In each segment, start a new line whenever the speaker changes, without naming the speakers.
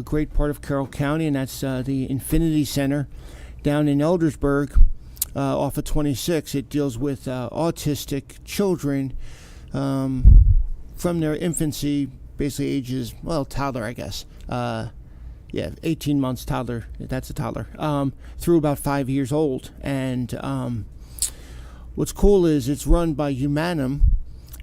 a great part of Carroll County, and that's uh, the Infinity Center down in Eldersburg uh, off of 26. It deals with uh, autistic children um, from their infancy, basically ages, well, toddler, I guess. Uh, yeah, 18 months toddler, that's a toddler, um, through about five years old. And um, what's cool is it's run by Humanum,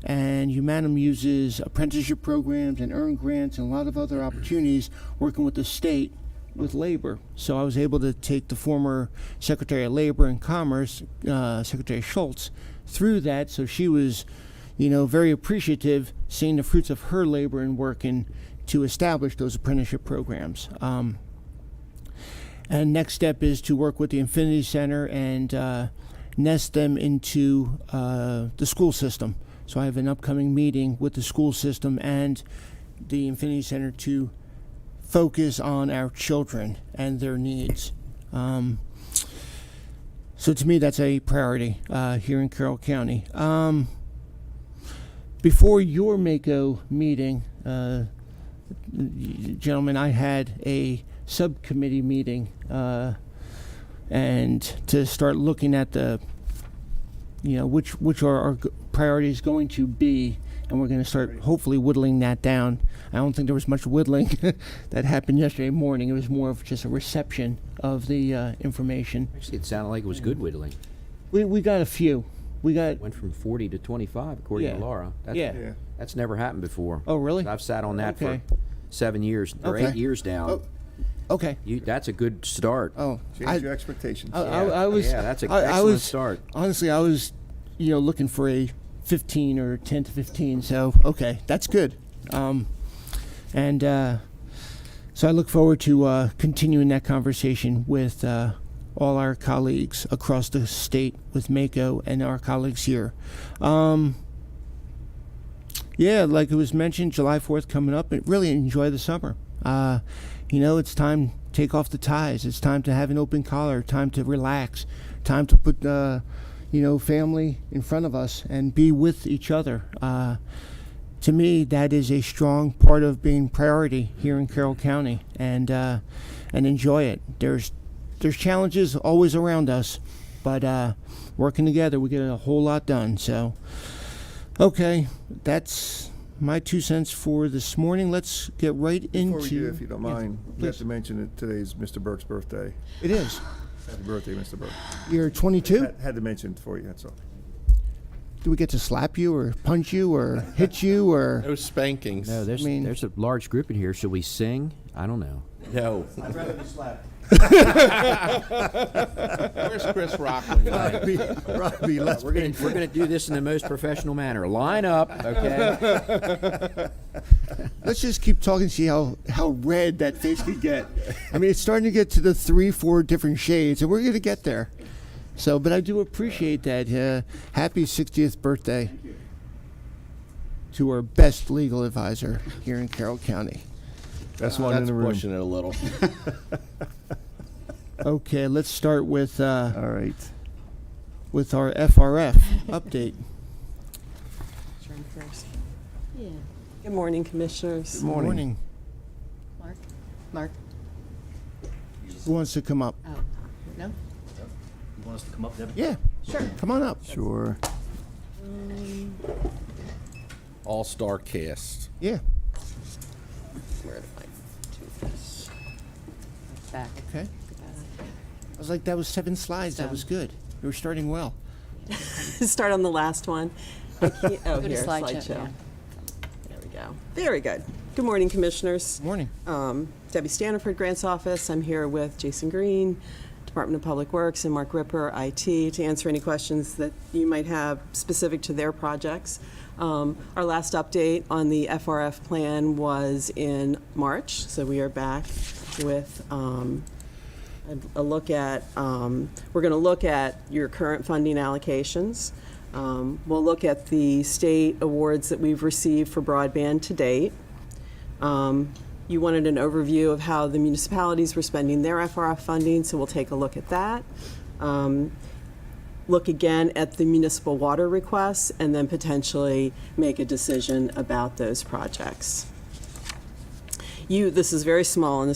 and Humanum uses apprenticeship programs and earn grants and a lot of other opportunities working with the state with labor. So I was able to take the former Secretary of Labor and Commerce, uh, Secretary Schultz, through that. So she was, you know, very appreciative seeing the fruits of her labor and working to establish those apprenticeship programs. Um, and next step is to work with the Infinity Center and uh, nest them into uh, the school system. So I have an upcoming meeting with the school system and the Infinity Center to focus on our children and their needs. Um, so to me, that's a priority uh, here in Carroll County. Um, before your Mako meeting, uh, gentlemen, I had a subcommittee meeting uh, and to start looking at the, you know, which, which are our g- priorities going to be. And we're going to start hopefully whittling that down. I don't think there was much whittling that happened yesterday morning. It was more of just a reception of the uh, information.
Actually, it sounded like it was good whittling.
We, we got a few. We got,
Went from 40 to 25, according
Yeah.
to Laura. That's,
yeah.
That's never happened before.
Oh, really?
I've sat on that
Okay.
for seven years or eight
Okay.
years now.
Oh.
Okay.
You, that's a good start.
Oh,
Change
I,
your expectations.
I, I, I
Yeah,
was.
yeah, that's an
I- I
excellent
was-
start.
Honestly, I was, you know, looking for a 15 or 10 to 15. So okay, that's good. Um, and uh, so I look forward to uh, continuing that conversation with uh, all our colleagues across the state, with Mako and our colleagues here. Um, yeah, like it was mentioned, July 4th coming up, and really enjoy the summer. Uh, you know, it's time take off the ties. It's time to have an open collar, time to relax, time to put, uh, you know, family in front of us and be with each other. Uh, to me, that is a strong part of being priority here in Carroll County, and uh, and enjoy it. There's there's challenges always around us, but uh, working together, we get a whole lot done. So, okay, that's my two cents for this morning. Let's get right
Before
into.
we do, if you don't
Yes,
mind, we have
please.
to mention that today is Mr. Burke's birthday.
It is.
Happy birthday, Mr. Burke.
You're 22.
Had- Had to mention it for you, that's all.
Do we get to slap you or punch you or hit you or?
No spankings.
No, there's,
I mean-
there's a large group in here. Should we sing? I don't know.
No.
I'd rather be slapped.
Where's Chris Rock? tonight?
Robbie, Robbie, let's
We're gonna, we're gonna do this in the most professional manner. Line up, okay?
Let's just keep talking, see how, how red that face could get. I mean, it's starting to get to the three, four different shades, and we're going to get there. So, but I do appreciate that. Uh, happy 60th birthday to our best legal advisor here in Carroll County.
That's one in
That's
the room.
pushing it a little.
Okay, let's start with uh,
All right.
with our FRF update.
Turn first. Good morning, Commissioners.
Morning.
Mark? Mark?
Who wants to come up?
Oh, no?
You want us to come up, Deb?
Yeah,
Sure.
come on up.
Sure.
All star cast.
Yeah.
Where do I do this? Back.
Okay. I was like, that was seven slides. That was good. You were starting well.
Start on the last one. I can't- Oh,
Go to
here,
slideshow,
slideshow.
yeah.
There we go. Very good. Good morning, Commissioners.
Morning.
Um, Debbie Staniford, Grants Office. I'm here with Jason Green, Department of Public Works, and Mark Ripper, IT, to answer any questions that you might have specific to their projects. Um, Our last update on the FRF plan was in March, so we are back with um, a a look at, um, we're going to look at your current funding allocations. Um, We'll look at the state awards that we've received for broadband to date. Um, You wanted an overview of how the municipalities were spending their FRF funding, so we'll take a look at that. Um, Look again at the municipal water requests, and then potentially make a decision about those projects. you, this is very small, and this